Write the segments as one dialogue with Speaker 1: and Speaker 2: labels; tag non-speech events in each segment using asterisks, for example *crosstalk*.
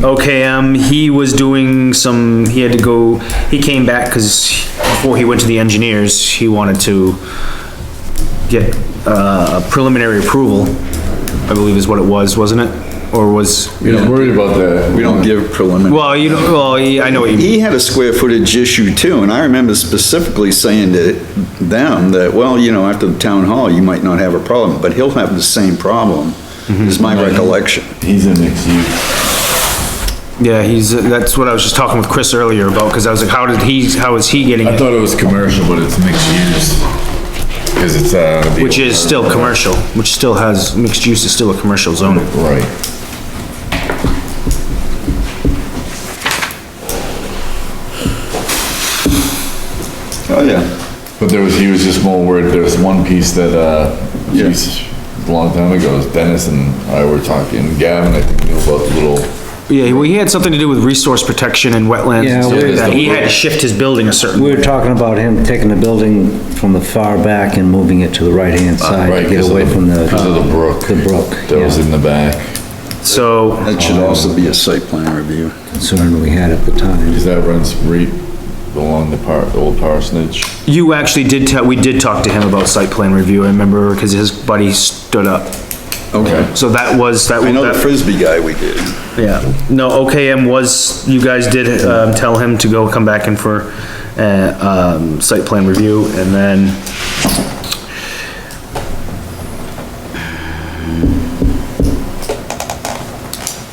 Speaker 1: OKM, um, he was doing some, he had to go, he came back because before he went to the engineers, he wanted to get uh, preliminary approval, I believe is what it was, wasn't it? Or was,
Speaker 2: You know, worried about that.
Speaker 3: We don't give preliminary.
Speaker 1: well, you, don't- well, I know what you mean.
Speaker 3: He had a square footage issue too, and I remember specifically saying to them that, well, you know, after the town hall, you might not have a problem, but he'll have the same problem, is my recollection.
Speaker 2: He's a mixed use.
Speaker 1: Yeah, he's, that's what I was just talking with Chris earlier about, because I was like, how did he, how is he getting
Speaker 2: I
Speaker 1: it?
Speaker 2: thought it was commercial, but it's mixed use. Cause it's, uh. the-
Speaker 1: Which is still commercial, which still has, mixed use is still a commercial zone.
Speaker 2: Right.
Speaker 3: Oh, yeah.
Speaker 2: But there was, he was just more worried, there was one piece that, uh, geez, a long time ago, Dennis and I were talking, Gavin, I think, knew about the little
Speaker 1: Yeah, well, he had something to do with resource protection and wetlands and
Speaker 4: Yeah,
Speaker 1: stuff like
Speaker 2: we're-
Speaker 1: that. He had to shift his building a certain
Speaker 4: We
Speaker 1: way.
Speaker 4: were talking about him taking the building from the far back and moving it to the right-hand side
Speaker 2: Uh, Right,
Speaker 4: Uh, to get
Speaker 2: 'cause of
Speaker 4: away
Speaker 2: the-
Speaker 4: from the.
Speaker 2: Because of the brook.
Speaker 4: The brook,
Speaker 2: That was
Speaker 4: yeah,
Speaker 2: in the back.
Speaker 1: So,
Speaker 3: That should also be a site plan review.
Speaker 4: concern we had at the time.
Speaker 2: Is that runs right along the par, the old parsonage?
Speaker 1: you actually did tell, we did talk to him about site plan review, I remember, because his buddy stood up.
Speaker 3: Okay.
Speaker 1: So that was, that,
Speaker 3: I know the
Speaker 1: that,
Speaker 3: Frisbee guy we did.
Speaker 1: yeah. No, OKM was, you guys did, um, tell him to go come back in for, uh, um, site plan review, and then,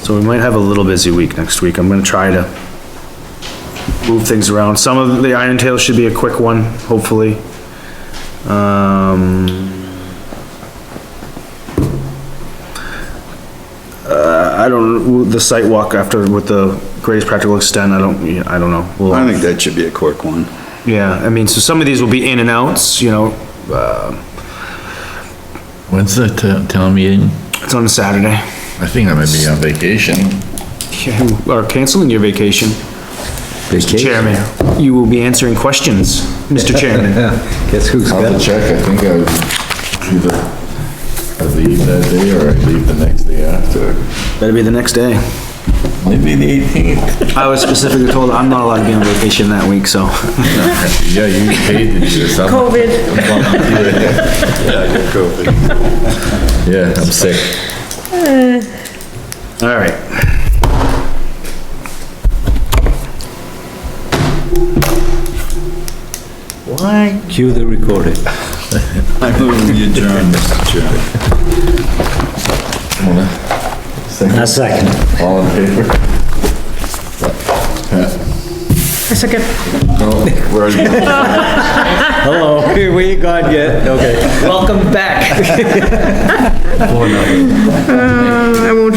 Speaker 1: so we might have a little busy week next week. I'm gonna try to move things around. Some of the Iron Tail should be a quick one, hopefully. Um. Uh, I don't, the site walk after with the greatest practical extent, I don't, yeah, I don't know. We'll-
Speaker 3: I think that should be a quick one.
Speaker 1: Yeah, I mean, so some of these will be in and outs, you know,
Speaker 5: When's the t- town meeting?
Speaker 1: it's on a Saturday.
Speaker 2: I think I might be on vacation.
Speaker 1: Yeah, You are canceling your vacation, Chairman. You will be answering questions, Mr. Chairman.
Speaker 4: Yeah, Guess who's
Speaker 2: I'll
Speaker 4: got
Speaker 2: have to
Speaker 4: it?
Speaker 2: check, I think I was either, I leave that day or I leave the next day after.
Speaker 1: Better be the next day.
Speaker 2: Maybe the eighteenth.
Speaker 1: I was specifically told I'm not allowed to be on vacation that week, so.
Speaker 2: Yeah, you paid to do this. I'm-
Speaker 6: COVID.
Speaker 2: *laughs* Yeah, I'm sick.
Speaker 1: All right.
Speaker 4: Cue the recorder.
Speaker 3: I move you adjourn, Mr. Chairman.
Speaker 4: A second. *laughs*
Speaker 2: All in favor?
Speaker 6: A second.
Speaker 2: No, we're already. *laughs*
Speaker 4: Hello, where you gone yet?
Speaker 2: *laughs*
Speaker 4: Okay.
Speaker 1: Welcome back.
Speaker 6: Mm, I won't